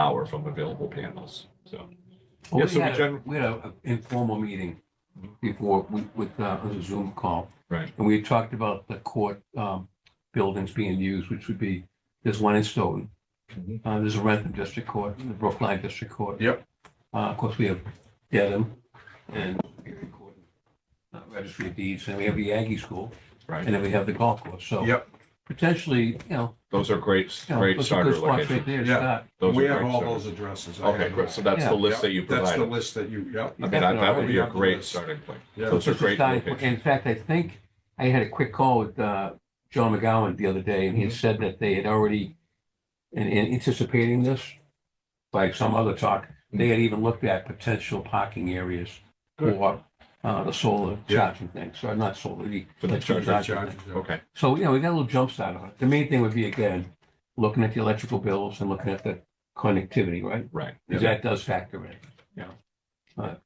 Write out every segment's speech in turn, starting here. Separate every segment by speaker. Speaker 1: power from available panels, so.
Speaker 2: Well,
Speaker 1: Yes,
Speaker 2: We
Speaker 1: so
Speaker 2: had, a-
Speaker 1: gen-
Speaker 2: we had an informal meeting before, we- with, uh, it was a Zoom call.
Speaker 1: Right.
Speaker 2: And we talked about the court, um, buildings being used, which would be, there's one in Stoughton.
Speaker 1: Mhm.
Speaker 2: Uh, there's a Rentham District Court, and the Brookline District Court.
Speaker 1: Yep.
Speaker 2: Uh, of course, we have Dedham and Superior Court, uh, Registry of Deeds, and we have the Aggie School, and
Speaker 1: Right,
Speaker 2: then we have the golf course, so.
Speaker 3: Yep.
Speaker 2: Potentially, you know,
Speaker 1: those are great,
Speaker 2: you know,
Speaker 1: great
Speaker 2: those are
Speaker 1: starter
Speaker 2: good spots right
Speaker 1: locations.
Speaker 2: there to
Speaker 3: Yeah.
Speaker 2: start.
Speaker 1: Those
Speaker 3: We
Speaker 1: are
Speaker 3: have
Speaker 1: great
Speaker 3: all
Speaker 1: starter-
Speaker 3: those addresses. I
Speaker 1: Okay,
Speaker 3: have
Speaker 1: great,
Speaker 3: them.
Speaker 1: so that's the
Speaker 2: Yeah.
Speaker 1: list that you
Speaker 3: That's the
Speaker 1: provided.
Speaker 3: list that you, yep,
Speaker 1: I mean, that, that would be a
Speaker 3: Definitely.
Speaker 1: great starting point.
Speaker 3: Yeah.
Speaker 1: Those are
Speaker 2: It's a
Speaker 1: great
Speaker 2: starting point.
Speaker 1: locations.
Speaker 2: In fact, I think I had a quick call with uh, John McGowan the other day, and
Speaker 1: Mm-hmm.
Speaker 2: he had said that they had already, in in anticipating this, like some other talk,
Speaker 1: Mm-hmm.
Speaker 2: they had even looked at potential parking areas
Speaker 3: Good.
Speaker 2: for uh, the solar
Speaker 3: Yeah.
Speaker 2: charging thing, so not solar, the.
Speaker 1: For the
Speaker 2: electrical
Speaker 1: chargers,
Speaker 2: charging
Speaker 3: Charges,
Speaker 2: thing.
Speaker 3: yeah.
Speaker 1: Okay,
Speaker 2: So, you know, we got a little jump start on it. The main thing would be, again, looking at the electrical bills and looking at the connectivity, right?
Speaker 1: right.
Speaker 2: Because that does factor in.
Speaker 1: Yeah.
Speaker 2: But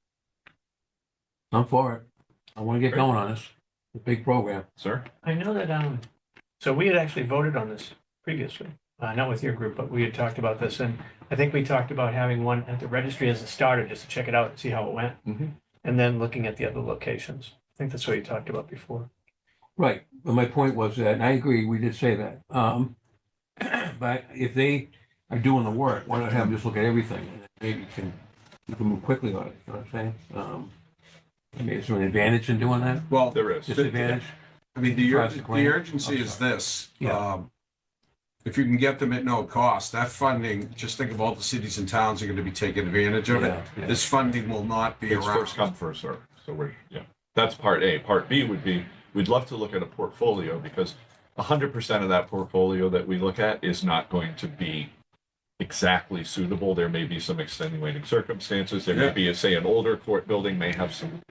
Speaker 2: I'm for it. I want to get
Speaker 1: Great.
Speaker 2: going on this. It's a big program.
Speaker 1: Sir,
Speaker 4: I know that, um, so we had actually voted on this previously, uh, not with your group, but we had talked about this, and I think we talked about having one at the registry as a starter, just to check it out and see how it went.
Speaker 1: Mhm.
Speaker 4: And then looking at the other locations. I think that's what you talked about before.
Speaker 2: Right. But my point was that, and I agree, we did say that. Um, but if they are doing the work, why not have them just look at everything? and then Maybe you can, you can move quickly on it. You know what I'm saying? Um, I mean, is there an advantage in doing that?
Speaker 3: Well,
Speaker 1: there is.
Speaker 2: Disadvantage?
Speaker 3: I mean, the ur-
Speaker 2: Drives the
Speaker 3: the
Speaker 2: plan.
Speaker 3: urgency
Speaker 2: I'm
Speaker 3: is this.
Speaker 2: Yeah.
Speaker 3: um, If you can get them at no cost, that funding, just think of all the cities and towns are going to be taking advantage of it.
Speaker 2: Yeah, yeah.
Speaker 3: This funding will not be
Speaker 1: It's first
Speaker 3: around.
Speaker 1: come, first served. So we're, yeah, that's part A. Part B would be, we'd love to look at a portfolio because hundred percent of that portfolio that we look at is not going to be exactly suitable. There may be some extenuating circumstances. There may
Speaker 3: Yeah.
Speaker 1: be, say, an older court building may have some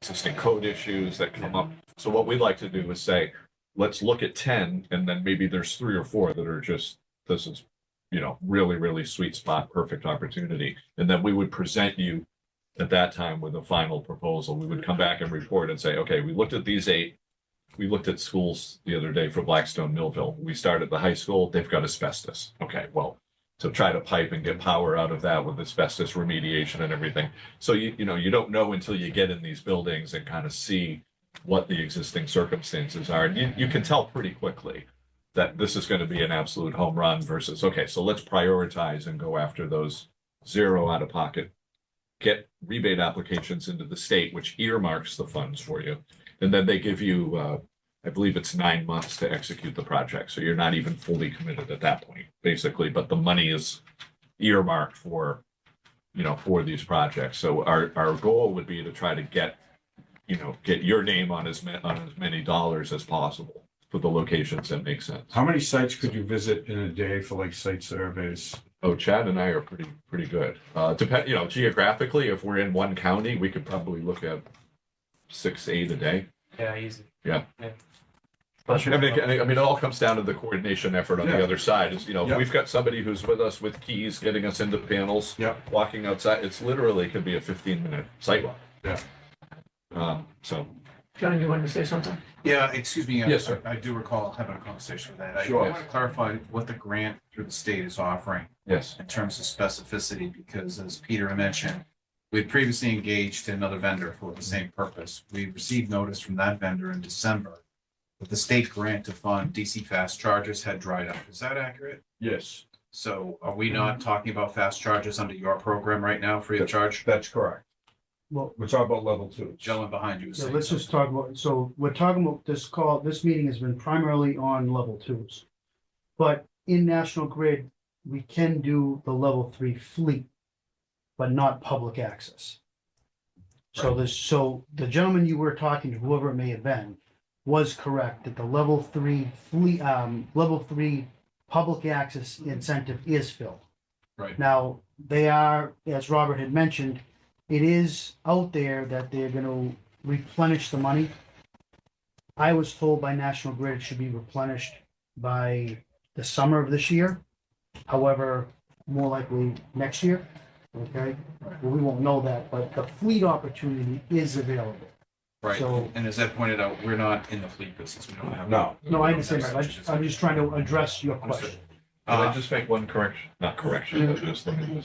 Speaker 1: existing code issues that come up. So what we'd like to do is say, let's look at ten and then maybe there's three or four that are just, this is, you know, really, really sweet spot, perfect opportunity. And then we would present you at that time with a final proposal. We would come back and report and say, okay, we looked at these eight. We looked at schools the other day for Blackstone Millville. We started the high school, they've got asbestos. Okay, well, so try to pipe and get power out of that with asbestos remediation and everything. So you, you know, you don't know until you get in these buildings and kind of see what the existing circumstances are. And you, you can tell pretty quickly that this is going to be an absolute home run versus, okay, so let's prioritize and go after those zero out of pocket get rebate applications into the state, which earmarks the funds for you. And then they give you, uh, I believe it's nine months to execute the project. So you're not even fully committed at that point, basically, but the money is earmarked for, you know, for these projects. So our, our goal would be to try to get, you know, get your name on as ma- on as many dollars as possible for the locations that make sense.
Speaker 3: How many sites could you visit in a day for like site surveys?
Speaker 1: Oh, Chad and I are pretty, pretty good. Uh, depend, you know, geographically, if we're in one county, we could probably look at six, eight a day.
Speaker 5: Yeah, easy.
Speaker 1: I mean, I I mean, it all comes down to the coordination effort on the
Speaker 3: Yeah.
Speaker 1: other side is, you know,
Speaker 3: Yeah.
Speaker 1: if we've got somebody who's with us with keys, getting us into panels.
Speaker 3: Yeah.
Speaker 1: Walking outside, it's literally could be a fifteen minute sidewalk.
Speaker 3: Yeah.
Speaker 1: Um, so,
Speaker 4: John, you wanted to say something?
Speaker 6: Yeah, excuse me. I-
Speaker 1: Yes, sir.
Speaker 6: I I do recall having a conversation with that. I-
Speaker 1: Sure.
Speaker 6: I want to clarify what the grant through the state is offering
Speaker 1: yes,
Speaker 6: in terms of specificity, because as Peter mentioned, we had previously engaged another vendor for the same purpose. We received notice from that vendor in December that the state grant to fund DC fast chargers had dried up. Is that accurate?
Speaker 3: Yes,
Speaker 6: So are we not talking about fast chargers under your program right now, free of charge?
Speaker 3: that's correct.
Speaker 7: Well-
Speaker 3: We're talking about level two.
Speaker 6: Gentleman behind you was
Speaker 7: Yeah,
Speaker 6: saying
Speaker 7: let's
Speaker 6: something.
Speaker 7: just talk about, so we're talking about this call, this meeting has been primarily on level twos. But in National Grid, we can do the level three fleet, but not public access. So this, so the gentleman you were talking to, whoever it may have been, was correct that the level three fleet, um, level three public access incentive is filled.
Speaker 6: Right.
Speaker 7: Now, they are, as Robert had mentioned, it is out there that they're gonna replenish the money. I was told by National Grid it should be replenished by the summer of this year. However, more likely next year, okay? Well, we won't know that, but the fleet opportunity is available.
Speaker 6: Right.
Speaker 7: So,
Speaker 6: And as I pointed out, we're not in the fleet business. We don't have.
Speaker 3: No,
Speaker 7: no, I understand, that. I just- I'm just trying to address your question.
Speaker 1: Can I
Speaker 6: Uh,
Speaker 1: just make one correction? Not correction, but just let me